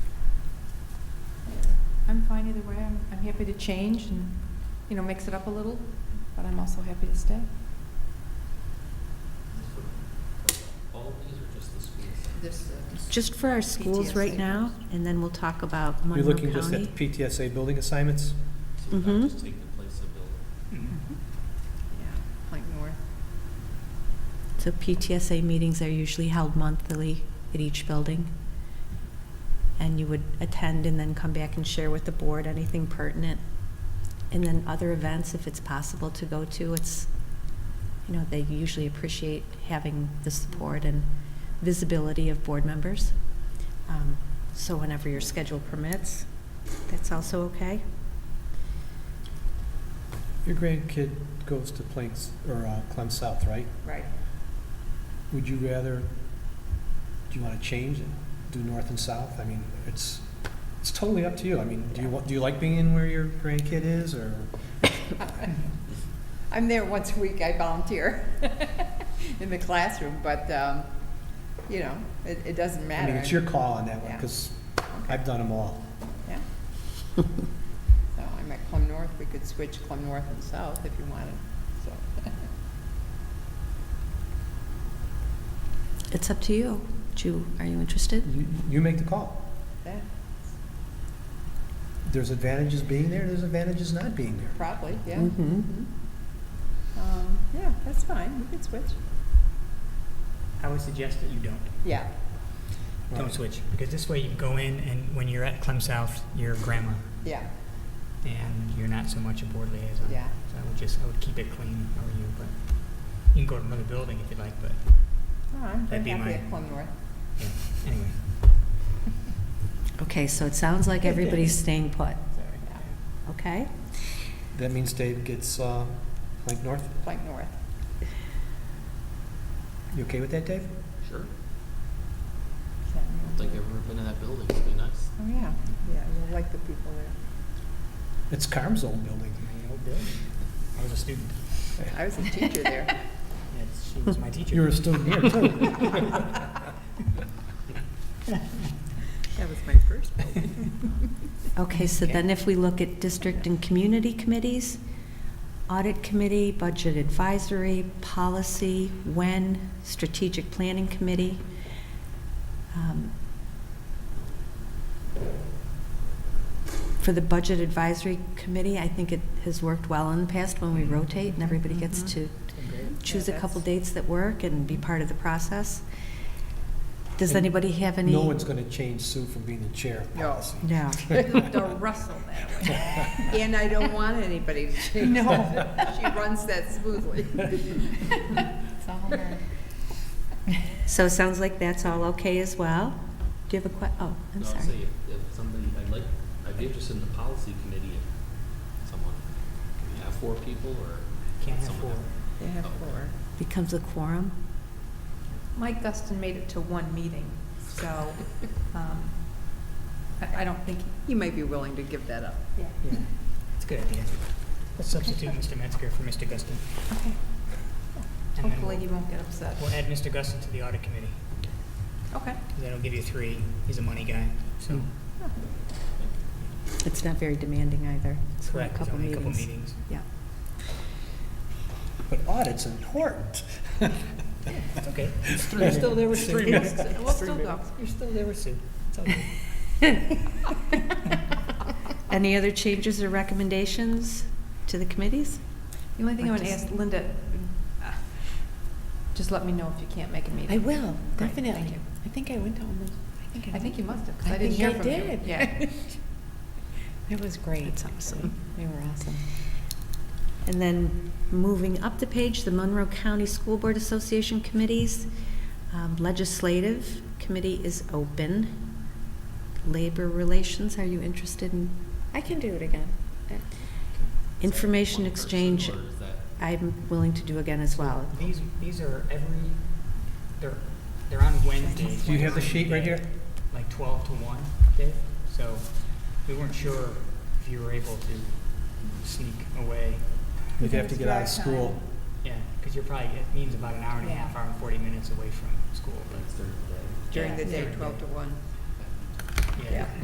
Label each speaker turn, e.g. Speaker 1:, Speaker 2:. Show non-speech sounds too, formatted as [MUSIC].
Speaker 1: I'm fine either way. I'm, I'm happy to change and, you know, mix it up a little, but I'm also happy to stay.
Speaker 2: All of these are just the schools.
Speaker 3: This, uh,
Speaker 4: Just for our schools right
Speaker 3: PTSA
Speaker 4: now,
Speaker 3: first.
Speaker 4: and then we'll talk about
Speaker 5: You're
Speaker 4: Monroe
Speaker 5: looking just at
Speaker 4: County.
Speaker 5: the PTSA building assignments?
Speaker 2: So that
Speaker 4: Mhm.
Speaker 2: just take the place of building.
Speaker 3: yeah, Plank North.
Speaker 4: So PTSA meetings are usually held monthly at each building. And you would attend and then come back and share with the board anything pertinent. And then other events, if it's possible to go to, it's, you know, they usually appreciate having the support and visibility of board members. Um, So whenever your schedule permits, that's also okay.
Speaker 5: Your grandkid goes to Planks, or uh, Clem South, right?
Speaker 4: Right.
Speaker 5: Would you rather, do you want to change and do north and south? I mean, it's, it's totally up to you. I mean, do you, want? do you like being in where your grandkid is, or?
Speaker 3: I'm there once a week, I volunteer [LAUGHS] in the classroom, but, um, you know, it, it doesn't
Speaker 5: I
Speaker 3: matter.
Speaker 5: mean, it's your call on that one,
Speaker 3: Yeah.
Speaker 5: because I've done them all.
Speaker 3: Yeah. So I'm at Clem North, we could switch Clem North and South if you wanted, so.
Speaker 4: It's up to you. Do, you- are you interested?
Speaker 5: You, you make the call.
Speaker 3: Yeah,
Speaker 5: There's advantages being there, there's advantages not being there.
Speaker 3: probably, yeah.
Speaker 4: Mhm.
Speaker 3: Mhm. Um, yeah, that's fine, we could switch.
Speaker 6: I would suggest that you don't.
Speaker 3: Yeah,
Speaker 6: Don't
Speaker 5: Right.
Speaker 6: switch, because this way you go in and when you're at Clem South, you're grandma,
Speaker 3: yeah,
Speaker 6: and you're not so much a board liaison.
Speaker 3: yeah.
Speaker 6: So I would just, I would keep it clean over you, but you can go to another building if you'd like, but
Speaker 3: No, Oh, I'm very
Speaker 6: That'd be
Speaker 3: happy
Speaker 6: my-
Speaker 3: at Clem North.
Speaker 6: anyway.
Speaker 4: Okay, so it sounds like everybody's staying put,
Speaker 3: Sorry, yeah,
Speaker 4: okay?
Speaker 5: That means Dave gets, uh, Plank North.
Speaker 3: Plank North.
Speaker 5: You okay with that, Dave?
Speaker 2: Sure.
Speaker 3: Can't
Speaker 2: I don't think I've ever been in that building. It'd be nice.
Speaker 3: Oh, yeah, yeah, you'll like the people there.
Speaker 5: It's Carm's old building.
Speaker 6: My old building. I was a student.
Speaker 3: I was a teacher there.
Speaker 6: That's- She was my teacher.
Speaker 5: You're a student here, too.
Speaker 3: [LAUGHS] That was my first building.
Speaker 4: Okay, so then if we look at district and community committees, audit committee, budget advisory, policy, when, strategic planning committee. um, For the budget advisory committee, I think it has worked well in the past when we rotate and everybody gets
Speaker 3: Mhm.
Speaker 4: to choose
Speaker 3: Yeah,
Speaker 4: a couple
Speaker 3: that's-
Speaker 4: dates that work and be part of the process. Does anybody have any?
Speaker 5: No one's going to change Sue from being the chair of
Speaker 3: No.
Speaker 5: policy.
Speaker 4: No.
Speaker 3: [LAUGHS]
Speaker 1: Don't rustle that way.
Speaker 3: And I don't want anybody [LAUGHS] to change that. She runs that smoothly.
Speaker 1: It's
Speaker 6: [LAUGHS]
Speaker 1: all right.
Speaker 4: So it sounds like that's all okay as well? Do you have a que, oh, I'm
Speaker 2: No, I'd say
Speaker 4: sorry.
Speaker 2: if, if somebody, I'd like, I'd be interested in the policy committee if someone, can you have four people or?
Speaker 6: Can't have
Speaker 2: someone
Speaker 6: four.
Speaker 3: They have four.
Speaker 4: Becomes a quorum?
Speaker 1: Mike Dustin made it to one meeting, so, um, I, I don't think,
Speaker 3: You might be willing to give that up.
Speaker 1: yeah.
Speaker 6: Yeah, it's a good idea. Let's substitute Mr. Metzger for Mr. Guston.
Speaker 1: Okay.
Speaker 6: and then
Speaker 1: Hopefully
Speaker 6: we'll-
Speaker 1: he won't get upset.
Speaker 6: We'll add Mr. Guston to the audit committee,
Speaker 1: Okay.
Speaker 6: 'cause that'll give you three. He's a money guy, so.
Speaker 4: It's not very demanding either. It's only a
Speaker 6: Correct, there's
Speaker 4: couple
Speaker 6: only a couple
Speaker 4: meetings.
Speaker 6: meetings.
Speaker 4: Yeah.
Speaker 5: But audit's important. [LAUGHS]
Speaker 6: It's okay.
Speaker 5: three
Speaker 6: You're still there with
Speaker 5: minutes.
Speaker 6: Sue.
Speaker 5: Three minutes.
Speaker 1: We'll still go.
Speaker 6: You're still there with Sue. It's all good.
Speaker 4: Any other changes or recommendations to the committees?
Speaker 1: The only thing I
Speaker 4: Like
Speaker 1: want to
Speaker 4: just-
Speaker 1: ask Linda, uh, just let me know if you can't make a meeting.
Speaker 7: will,
Speaker 1: Great, thank you.
Speaker 7: I think I went to almost, I think
Speaker 1: I think you must have, because
Speaker 7: I
Speaker 1: I didn't hear
Speaker 7: think I
Speaker 1: from you.
Speaker 7: did.
Speaker 1: Yeah.
Speaker 7: It was great.
Speaker 4: That's awesome.
Speaker 7: They were awesome.
Speaker 4: And then moving up the page, the Monroe County School Board Association committees. Um, Legislative committee is open. Labor relations, are you interested in
Speaker 7: I can do it again.
Speaker 2: Is that
Speaker 4: Information
Speaker 2: one person
Speaker 4: exchange,
Speaker 2: Or is that?
Speaker 4: I'm willing to do again as well.
Speaker 6: These, these are every, they're, they're on Wednesdays.
Speaker 5: Do you have the
Speaker 6: like
Speaker 5: sheet right here?
Speaker 6: Like twelve to one, Dave, so we weren't sure if you were able to sneak away.
Speaker 5: You'd have to get out of school.
Speaker 6: Yeah, because you're probably, it means about an hour and a half, hour and forty minutes away from school,
Speaker 2: That's during the day.
Speaker 3: During the
Speaker 6: Yeah.
Speaker 3: day, 12 to 1.
Speaker 6: but, yeah.
Speaker 3: Yeah.